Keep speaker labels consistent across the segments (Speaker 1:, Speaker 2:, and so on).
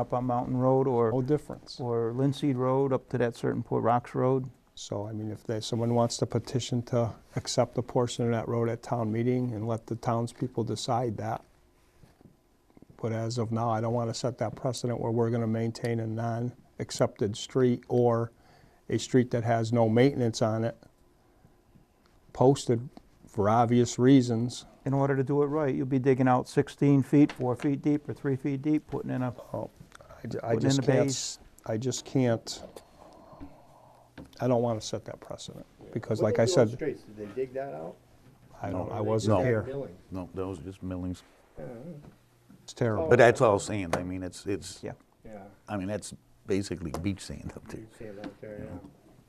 Speaker 1: up on Mountain Road
Speaker 2: No
Speaker 1: or,
Speaker 2: difference.
Speaker 1: or Linseed Road up to that certain point, Rocks Road.
Speaker 2: So, I mean, if they, someone wants to petition to accept a portion of that road at town meeting and let the townspeople decide that. But as of now, I don't want to set that precedent where we're going to maintain a non-accepted street or a street that has no maintenance on it posted for obvious reasons.
Speaker 1: In order to do it right, you'll be digging out 16 feet, four feet deep or three feet deep, putting in a,
Speaker 2: Oh, I ju-
Speaker 1: Putting
Speaker 2: I
Speaker 1: in
Speaker 2: just
Speaker 1: the
Speaker 2: can't,
Speaker 1: bays.
Speaker 2: s- I just can't, I don't want to set that precedent because like I said,
Speaker 3: Streets, did they dig that out?
Speaker 2: I don't,
Speaker 3: Or
Speaker 2: I
Speaker 3: they
Speaker 2: wasn't
Speaker 3: just had
Speaker 2: here.
Speaker 3: milling?
Speaker 4: No, those are just millings.
Speaker 2: It's terrible.
Speaker 4: But that's all sand, I mean, it's, it's,
Speaker 1: yeah.
Speaker 3: Yeah,
Speaker 4: I mean, that's basically beach sand up there.
Speaker 3: you see it out there, yeah.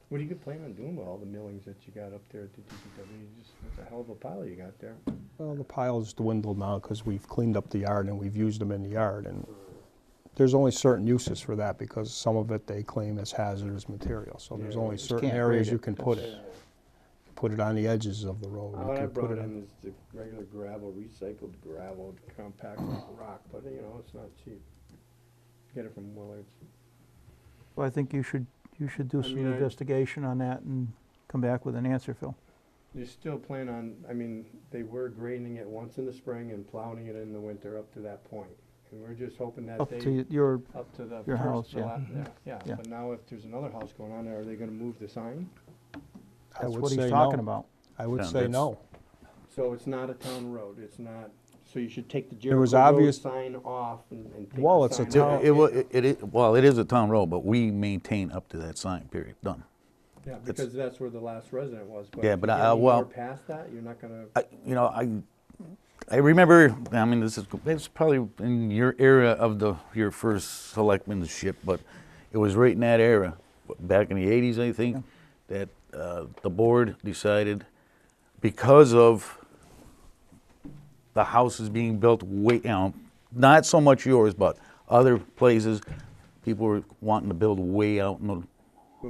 Speaker 3: What do you plan on doing with all the millings that you got up there at the DPW? You just, it's a hell of a pile you got there.
Speaker 2: Well, the pile's dwindled now because we've cleaned up the yard and we've used them in the yard. And there's only certain uses for that because some of it they claim is hazardous material. So there's
Speaker 3: Yeah,
Speaker 2: only
Speaker 3: you
Speaker 2: certain
Speaker 1: can't
Speaker 2: areas
Speaker 1: grade
Speaker 2: you
Speaker 1: it.
Speaker 2: can put it. Put it on the edges of the road. You
Speaker 3: What I
Speaker 2: can put
Speaker 3: brought
Speaker 2: it on-
Speaker 3: in is the regular gravel, recycled gravel, compacted rock, but you know, it's not cheap. Get it from Willards.
Speaker 1: Well, I think you should, you should do
Speaker 3: I
Speaker 1: some
Speaker 3: mean, I-
Speaker 1: investigation on that and come back with an answer, Phil.
Speaker 3: You still plan on, I mean, they were grading it once in the spring and plowing it in the winter up to that point. And we're just hoping that
Speaker 1: Up
Speaker 3: they.
Speaker 1: to your,
Speaker 3: Up to the.
Speaker 1: Your
Speaker 3: first-
Speaker 1: house,
Speaker 3: the
Speaker 1: yeah.
Speaker 3: la-
Speaker 2: Mm-hmm.
Speaker 3: Yeah,
Speaker 1: Yeah.
Speaker 3: yeah, but now if there's another house going on there, are they gonna move the sign?
Speaker 2: I
Speaker 1: that's
Speaker 2: would
Speaker 1: what he's
Speaker 2: say
Speaker 1: talking
Speaker 2: no.
Speaker 1: about.
Speaker 2: I would
Speaker 4: No,
Speaker 2: say
Speaker 4: that's-
Speaker 2: no.
Speaker 3: So it's not a town road, it's not, so you should take the
Speaker 2: There was
Speaker 3: Jericho Road
Speaker 2: obvious-
Speaker 3: sign off and and take the sign
Speaker 2: Well, it's a
Speaker 4: It-
Speaker 2: town-
Speaker 3: off.
Speaker 4: It, wa- it, it, well, it is a town road, but we maintain up to that sign, period, done.
Speaker 3: Yeah, because that's where the last resident was, but.
Speaker 4: Yeah,
Speaker 3: if
Speaker 4: but
Speaker 3: you
Speaker 4: I-
Speaker 3: get
Speaker 4: I-
Speaker 3: any
Speaker 4: well-
Speaker 3: more Past that, you're not gonna,
Speaker 4: I, you know, I, I remember, I mean, this is, it's probably in your era of the, your first selectmanship, but it was right in that era, back in the eighties, I think, that, uh, the board decided, because of the houses being built way, you know, not so much yours, but other places, people were wanting to build way out in the,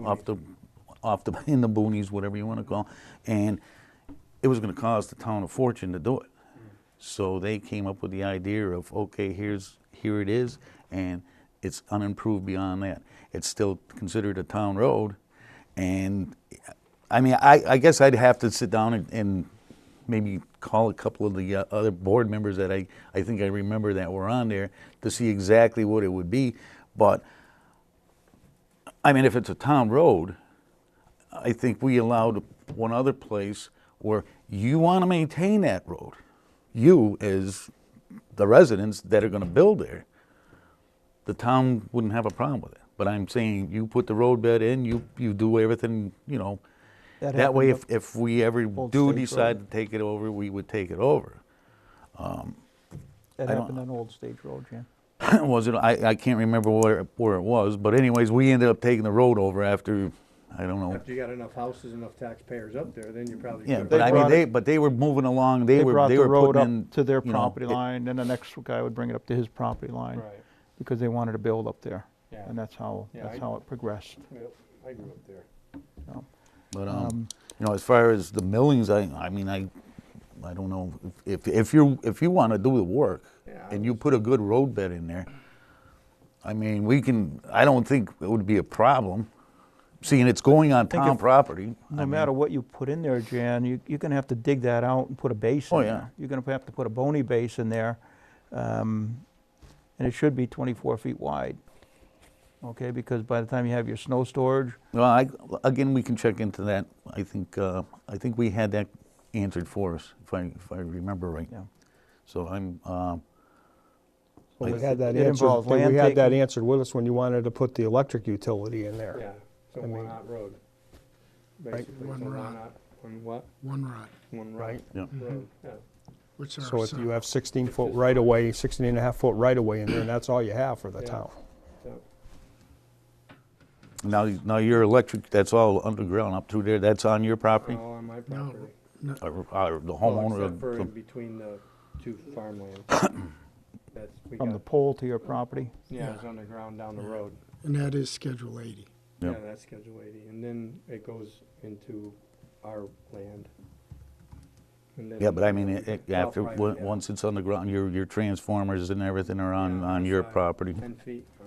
Speaker 4: off the, off the, in the boonies, whatever you want to call, and it was going to cost the town a fortune to do it. So they came up with the idea of, okay, here's, here it is, and it's unimproved beyond that. It's still considered a town road, and, I mean, I, I guess I'd have to sit down and, and maybe call a couple of the uh, other board members that I, I think I remember that were on there to see exactly what it would be, but, I mean, if it's a town road, I think we allowed one other place where you want to maintain that road. You, as the residents that are going to build there, the town wouldn't have a problem with it. But I'm saying you put the roadbed in, you, you do everything, you know.
Speaker 1: That
Speaker 4: That way, if,
Speaker 1: happened
Speaker 4: if we ever
Speaker 1: Old
Speaker 4: do
Speaker 1: States
Speaker 4: decide
Speaker 1: Road.
Speaker 4: to take it over, we would take it over.
Speaker 1: That
Speaker 4: I don't-
Speaker 1: happened on Old Stage Road, Jim.
Speaker 4: was it? I, I can't remember where, where it was, but anyways, we ended up taking the road over after, I don't know.
Speaker 3: after you got enough houses, enough taxpayers up there, then you probably.
Speaker 4: Yeah,
Speaker 3: could.
Speaker 4: but
Speaker 1: They
Speaker 4: I mean,
Speaker 1: brought
Speaker 4: they,
Speaker 1: it-
Speaker 4: but they were moving along, they
Speaker 1: They
Speaker 4: were,
Speaker 1: brought
Speaker 4: they
Speaker 1: the
Speaker 4: were
Speaker 1: road
Speaker 4: putting
Speaker 1: up
Speaker 4: in.
Speaker 1: to their
Speaker 4: you know,
Speaker 1: property
Speaker 4: it-
Speaker 1: line, then the next guy would bring it up to his property line.
Speaker 3: Right,
Speaker 1: Because they wanted to build up there.
Speaker 3: Yeah.
Speaker 1: And that's how,
Speaker 3: Yeah,
Speaker 1: that's
Speaker 3: I-
Speaker 1: how it progressed.
Speaker 3: yep, I grew up there.
Speaker 1: so.
Speaker 4: But,
Speaker 1: Um,
Speaker 4: um, you know, as far as the millings, I, I mean, I, I don't know, if, if you're, if you wanna do the work,
Speaker 3: Yeah, I
Speaker 4: and you put a good road bed in there, I mean, we can, I don't think it would be a problem, seeing it's going on
Speaker 1: think
Speaker 4: town
Speaker 1: if-
Speaker 4: property. I
Speaker 1: No
Speaker 4: mean,
Speaker 1: matter what you put in there, Jan, you, you're gonna have to dig that out and put a base in
Speaker 4: Oh,
Speaker 1: there.
Speaker 4: yeah.
Speaker 1: You're gonna have to put a bony base in there, um, and it should be twenty-four feet wide. Okay, because by the time you have your snow storage,
Speaker 4: Well, I, again, we can check into that, I think, uh, I think we had that answered for us, if I, if I remember right.
Speaker 1: yeah.
Speaker 4: So I'm, um,
Speaker 2: Well, we
Speaker 4: It-
Speaker 2: had that
Speaker 1: it
Speaker 2: answered,
Speaker 1: involves
Speaker 2: we
Speaker 1: land
Speaker 2: had that
Speaker 1: taking.
Speaker 2: answered with us when you wanted to put the electric utility in there.
Speaker 3: Yeah, so
Speaker 2: I mean-
Speaker 3: one hot road. Basically,
Speaker 5: One
Speaker 3: so one
Speaker 5: rod.
Speaker 3: hot, one what?
Speaker 5: One rod,
Speaker 3: One
Speaker 2: Right.
Speaker 3: right
Speaker 4: yeah.
Speaker 3: road,
Speaker 4: Mm-hmm.
Speaker 3: yeah.
Speaker 5: which are.
Speaker 2: So if you
Speaker 5: separate.
Speaker 2: have 16-foot right-of-way, 16 and a half foot right-of-way in there, and that's all you have for the
Speaker 3: Yeah.
Speaker 2: town.
Speaker 3: so-
Speaker 4: Now, now your electric, that's all underground up through there, that's on your property?
Speaker 3: All on my
Speaker 5: No,
Speaker 3: property.
Speaker 5: no,
Speaker 4: Or, or the
Speaker 3: Uh, Well,
Speaker 4: homeowner
Speaker 3: Except
Speaker 4: of,
Speaker 3: for in
Speaker 4: the-
Speaker 3: between the two farmland. That's, we
Speaker 1: from the
Speaker 3: got,
Speaker 1: pole to your property,
Speaker 3: yeah, it's underground down the road.
Speaker 5: And that is Schedule 80.
Speaker 4: Yeah.
Speaker 3: Yeah, that's Schedule 80, and then it goes into our land. And then-
Speaker 4: yeah, but I mean, it- it-
Speaker 3: Well,
Speaker 4: after,
Speaker 3: private,
Speaker 4: on-
Speaker 3: yeah.
Speaker 4: once it's underground, your, your transformers and everything are on,
Speaker 3: Yeah,
Speaker 4: on your
Speaker 3: side,
Speaker 4: property.
Speaker 3: 10 feet. uh,